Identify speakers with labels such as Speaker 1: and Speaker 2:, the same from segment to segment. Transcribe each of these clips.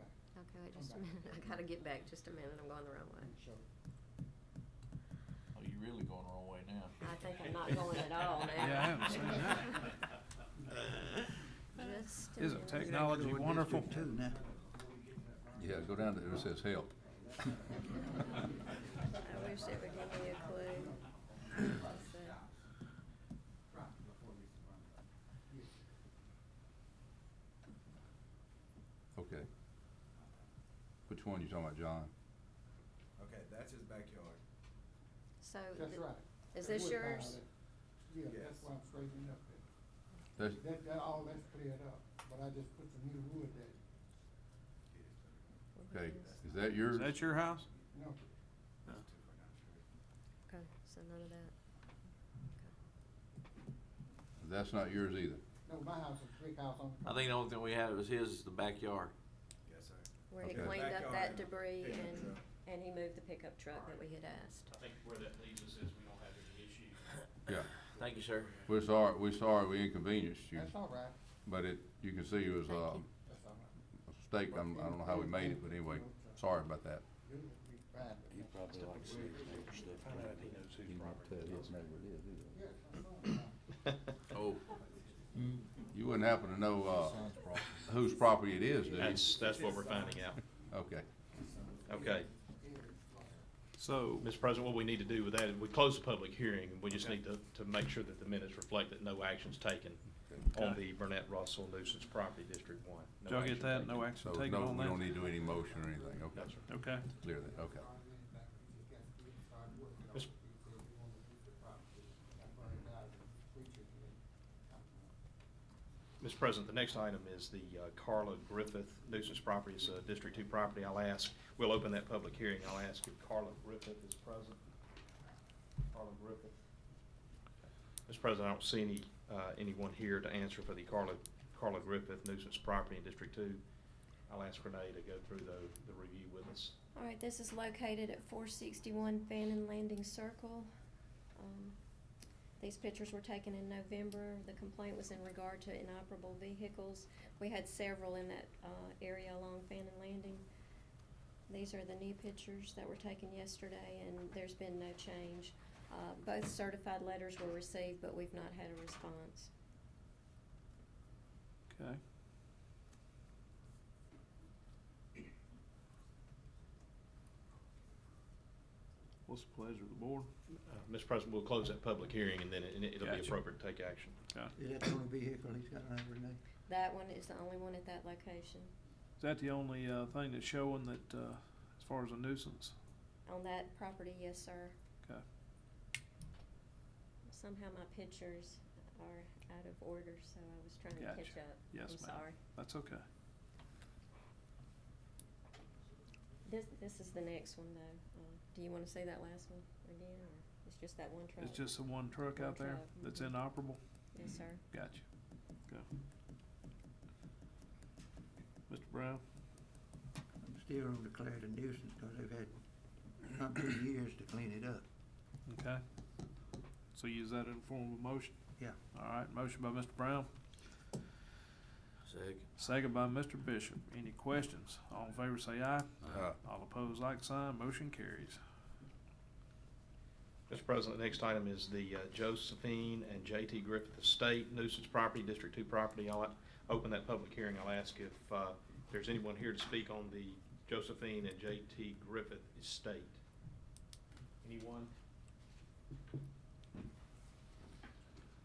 Speaker 1: wait
Speaker 2: Come
Speaker 1: just a
Speaker 2: back.
Speaker 1: minute, I gotta get back just a minute, I'm going the wrong way.
Speaker 2: Sure.
Speaker 3: Oh, you're really going the wrong way now.
Speaker 1: I think I'm not going at all now.
Speaker 4: Yeah, I haven't seen that.
Speaker 1: Just a
Speaker 4: Isn't
Speaker 1: minute.
Speaker 4: technology
Speaker 2: Go to
Speaker 4: wonderful?
Speaker 2: District Two now.
Speaker 5: Yeah, go down to, where it says help.
Speaker 1: I wish it would give me a clue. Let's see.
Speaker 5: Okay. Which one you talking about, John?
Speaker 6: Okay, that's his backyard.
Speaker 1: So.
Speaker 2: That's
Speaker 1: th-
Speaker 2: right.
Speaker 1: Oh, Is
Speaker 2: That
Speaker 1: this
Speaker 2: wood pile
Speaker 1: yours?
Speaker 2: there. Yeah,
Speaker 6: Yes.
Speaker 2: that's why I'm straightening up there.
Speaker 5: That's,
Speaker 2: That, that, all that's cleared up, but I just put some new wood there.
Speaker 5: okay, is that yours?
Speaker 4: Is that your house?
Speaker 2: No,
Speaker 1: Okay, so none of that.
Speaker 5: That's not yours either.
Speaker 2: no, my house is a big house on the.
Speaker 7: I think the only thing we had was his, the backyard.
Speaker 6: Yes, sir.
Speaker 1: Where he
Speaker 5: Okay.
Speaker 1: cleaned up
Speaker 6: Backyard
Speaker 1: that
Speaker 6: and
Speaker 1: debris
Speaker 6: pickup
Speaker 1: and,
Speaker 6: truck.
Speaker 1: and he moved the pickup truck that we had asked.
Speaker 8: I think where that leaves us is we don't have any issue.
Speaker 5: Yeah.
Speaker 7: Thank you, sir.
Speaker 5: We're sorry, we're sorry we inconvenienced you,
Speaker 2: That's all right,
Speaker 5: but it, you can see it was
Speaker 1: Thank
Speaker 5: uh,
Speaker 1: you.
Speaker 2: that's all right.
Speaker 5: a mistake. I'm, I don't know how we made it, but anyway, sorry about that.
Speaker 2: Good, we fine with that.
Speaker 7: probably likes to see
Speaker 2: Yes, I'm going now.
Speaker 5: Oh. You wouldn't happen to know, uh, whose property it is, do you?
Speaker 8: That's, that's what we're finding out.
Speaker 5: Okay.
Speaker 8: Okay.
Speaker 4: So,
Speaker 8: Mr. President, what we need to do with that is we close the public hearing, and we just need to, to make sure that the minutes reflect that no action's taken on the Burnett Russell nuisance property, District One. No
Speaker 4: did y'all
Speaker 8: action
Speaker 4: get that?
Speaker 8: taken.
Speaker 4: No action
Speaker 5: So,
Speaker 4: taken
Speaker 5: no,
Speaker 4: on
Speaker 5: we don't
Speaker 4: that?
Speaker 5: need to do any motion or anything, okay?
Speaker 8: sir.
Speaker 4: Okay.
Speaker 5: Clear that, okay.
Speaker 8: Mis- Mr. President, the next item is the uh, Carla Griffith nuisance property, it's a District Two property. I'll ask, we'll open that public hearing, I'll ask if Carla Griffith is present. Carla Griffith. Mr. President, I don't see any, uh, anyone here to answer for the Carla, Carla Griffith nuisance property in District Two. I'll ask Renee to go through the, the review with us.
Speaker 9: All right, this is located at four sixty-one Fannin Landing Circle. Um, These pictures were taken in November. The complaint was in regard to inoperable vehicles. We had several in that, uh, area along Fannin Landing. These are the new pictures that were taken yesterday, and there's been no change. Uh, both certified letters were received, but we've not had a response.
Speaker 4: Okay. What's the pleasure of the board?
Speaker 8: Uh, Mr. President, we'll close that public hearing, and then it- and it'll be
Speaker 4: Gotcha.
Speaker 8: appropriate to take action.
Speaker 2: Is that the only vehicle he's got around Renee?
Speaker 9: That one is the only one at that location.
Speaker 4: Is that the only, uh, thing that's showing that, uh, as far as a nuisance?
Speaker 9: On that property, yes, sir.
Speaker 4: Okay.
Speaker 9: Somehow my pictures are out of order, so I was trying to
Speaker 4: Gotcha.
Speaker 9: catch up.
Speaker 4: Yes,
Speaker 9: I'm
Speaker 4: ma'am.
Speaker 9: sorry.
Speaker 4: That's okay.
Speaker 9: This, this is the next one though. Uh, Do you wanna see that last one again, or it's just that one truck?
Speaker 4: It's just the one truck
Speaker 9: One
Speaker 4: out there
Speaker 9: truck,
Speaker 4: that's
Speaker 1: mm-hmm.
Speaker 9: mhm.
Speaker 4: inoperable?
Speaker 9: Yes, sir.
Speaker 4: Gotcha. Okay. Mr. Brown?
Speaker 10: I'm still on declared a nuisance because they've had not two years to clean it up.
Speaker 4: Okay. So use that in form of a motion?
Speaker 10: Yeah.
Speaker 4: All right, motion by Mr. Brown,
Speaker 7: Second.
Speaker 4: second by Mr. Bishop. Any questions? All in favor say aye.
Speaker 5: Uh,
Speaker 4: All opposed, like sign. Motion carries.
Speaker 8: Mr. President, the next item is the uh, Josephine and J.T. Griffith Estate nuisance property, District Two property. I'll a- open that public hearing. I'll ask if uh, there's anyone here to speak on the Josephine and J.T. Griffith Estate. Anyone?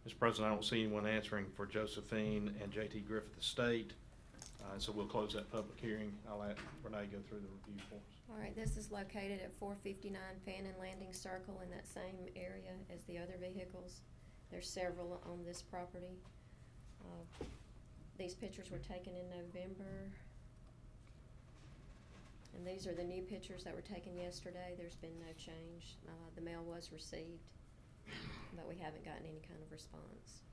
Speaker 8: Mr. President, I don't see anyone answering for Josephine and J.T. Griffith Estate, uh, so we'll close that public hearing. I'll let Renee go through the review for us.
Speaker 9: All right, this is located at four fifty-nine Fannin Landing Circle in that same area as the other vehicles. There's several on this property. Uh, These pictures were taken in November. And these are the new pictures that were taken yesterday. There's been no change. Uh, the mail was received, but we haven't gotten any kind of response.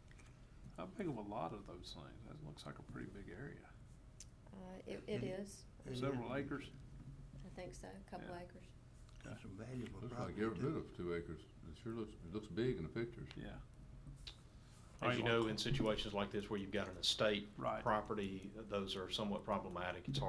Speaker 4: How big of a lot of those things? That looks like a pretty big area.
Speaker 9: Uh, it, it
Speaker 10: Mhm.
Speaker 9: is,
Speaker 10: It is-
Speaker 4: Several acres.
Speaker 9: I think so, a couple
Speaker 4: Yeah.
Speaker 9: acres.
Speaker 10: That's some valuable
Speaker 5: Looks like
Speaker 10: property
Speaker 5: every bit
Speaker 10: too.
Speaker 5: of two acres. It sure looks, it looks big in the pictures.
Speaker 4: Yeah.
Speaker 8: As you know, in situations like this where you've got an estate
Speaker 4: Right.
Speaker 8: property, those are somewhat problematic. It's hard